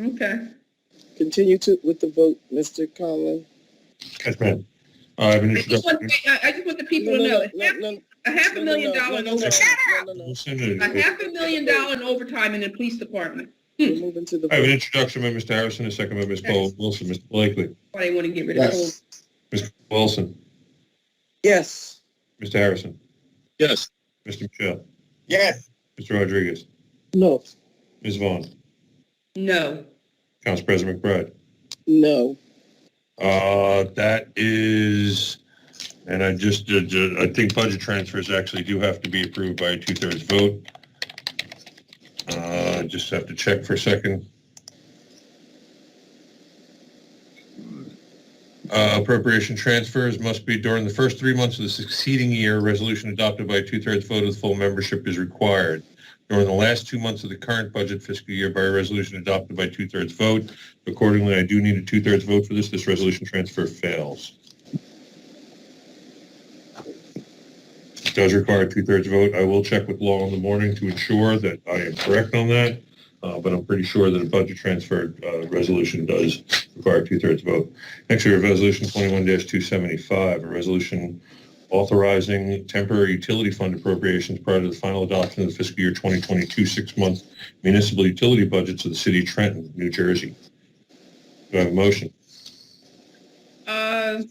Okay. Continue to, with the vote, Mr. Conlon. Yes, ma'am. I have an I just want, introduction. I, I just want the people No, to no, know, no, no, half- no, a half a no, million no, no, dollars, no, no, no, no, no. Wilson, and- a half a million dollar in overtime in the police department. We're moving to the I have an vote. introduction by Mr. Harrison, a second by Ms. Cole Wilson, Mr. Blakely, Why they want to get rid of the whole. Ms. Wilson, Yes. Mr. Harrison, Yes. Mr. Michelle, Yes. Mr. Rodriguez, No. Ms. Vaughn, No. Council President McBride. No. Uh, that is, and I just, did- uh, I think budget transfers actually do have to be approved by a two-thirds vote. Uh, just have to check for a second. Uh, appropriation transfers must be during the first three months of the succeeding year. Resolution adopted by a two-thirds vote of full membership is required. During the last two months of the current budget fiscal year by a resolution adopted by two-thirds vote, Accordingly, I do need a two-thirds vote for this. This resolution transfer fails. It does require a two-thirds vote. I will check with law in the morning to ensure that I am correct on that, uh, but I'm pretty sure that a budget transfer uh, resolution does require a two-thirds vote. Next, we have Resolution 21-275, a resolution authorizing temporary utility fund appropriations prior to the final adoption of the fiscal year 2022 six-month municipal utility budgets of the city of Trenton, New Jersey. Do I have a motion? Uh,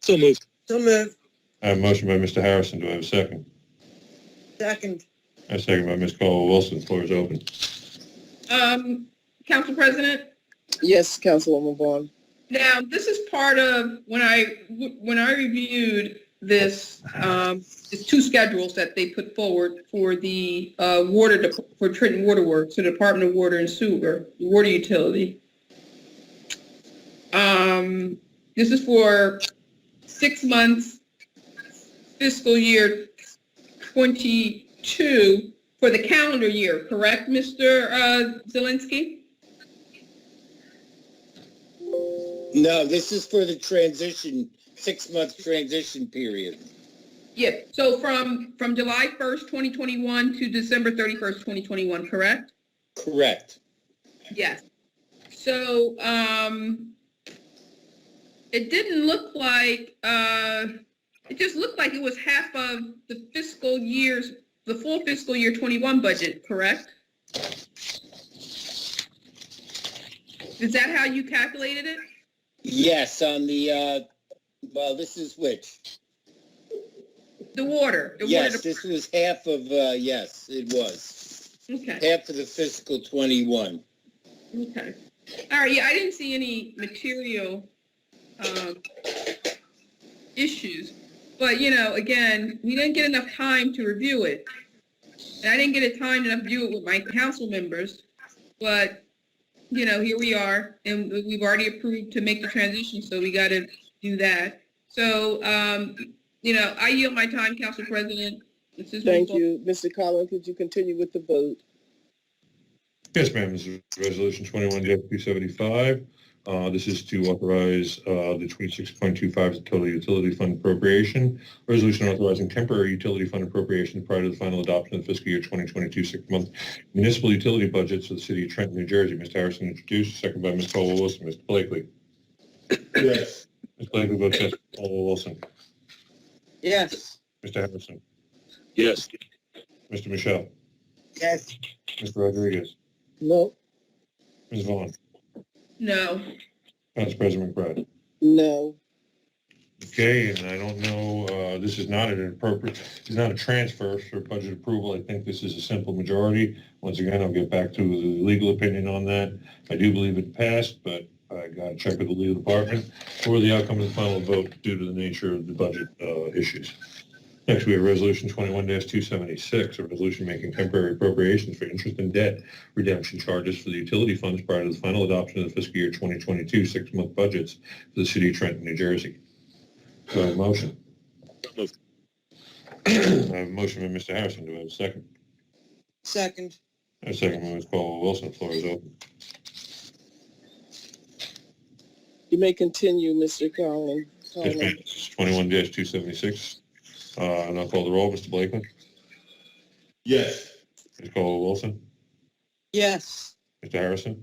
So moved. So moved. I have a motion by Mr. Harrison. Do I have a second? Second. A second by Ms. Caldwell Wilson. Floor is open. um, Council President? Yes, Councilwoman Vaughn. Now, this is part of, when I, when I reviewed this, um, it's two schedules that they put forward for the, uh, water, dep- for Trenton Water Works, the Department of Water and Sewer, Water Utility. Um, this is for six months fiscal year twenty-two for the calendar year, correct, Mr. uh, Zelinski? No, this is for the transition, six-month transition period. Yeah, so from, from July 1st, 2021 to December 31st, 2021, correct? Correct. Yes. So, um, it didn't look like, uh, it just looked like it was half of the fiscal years, the full fiscal year 21 budget, correct? Is that how you calculated it? Yes, on the, uh, well, this is which? The water? the water Yes, dep- this was half of, uh, yes, it was. Okay. Half of the fiscal 21. Okay. All right, yeah, I didn't see any material um, issues. But, you know, again, we didn't get enough time to review it. And I didn't get a time to review it with my council members. But, you know, here we are, and we've already approved to make the transition, so we got to do that. So, um, you know, I yield my time, Council President. This is- Thank you. Mr. Conlon, could you continue with the vote? Yes, ma'am. This is Resolution 21-275. Uh, This is to authorize uh, the 26.25 to total utility fund appropriation. Resolution authorizing temporary utility fund appropriation prior to the final adoption of the fiscal year 2022 six-month municipal utility budgets for the city of Trenton, New Jersey. Mr. Harrison introduced, second by Ms. Caldwell Wilson. Mr. Blakely. Yes. Ms. Blakely votes yes. Ms. Caldwell Wilson. Yes. Mr. Harrison. Yes. Mr. Michelle. Yes. Mr. Rodriguez. No. Ms. Vaughn. No. Council President McBride. No. Okay, and I don't know, uh, this is not an appropriate, this is not a transfer for budget approval. I think this is a simple majority. Once again, I'll get back to the legal opinion on that. I do believe it passed, but I gotta check with the legal department for the outcome of the final vote due to the nature of the budget, uh, issues. Next, we have Resolution twenty-one two seventy-six, a resolution making temporary appropriations for interest and debt redemption charges for the utility funds prior to the final adoption of the fiscal year twenty twenty-two six-month budgets for the city of Trenton, New Jersey. Do I have a motion? So moved. I have a motion by Mr. Harrison. Do I have a second? Second. I have a second by Ms. Caldwell Wilson. Floor is open. You may continue, Mr. Conlon. Yes, ma'am. This is twenty-one two seventy-six. Uh, and I'll call the roll. Mr. Blakeman? Yes. Ms. Caldwell Wilson? Yes. Mr. Harrison?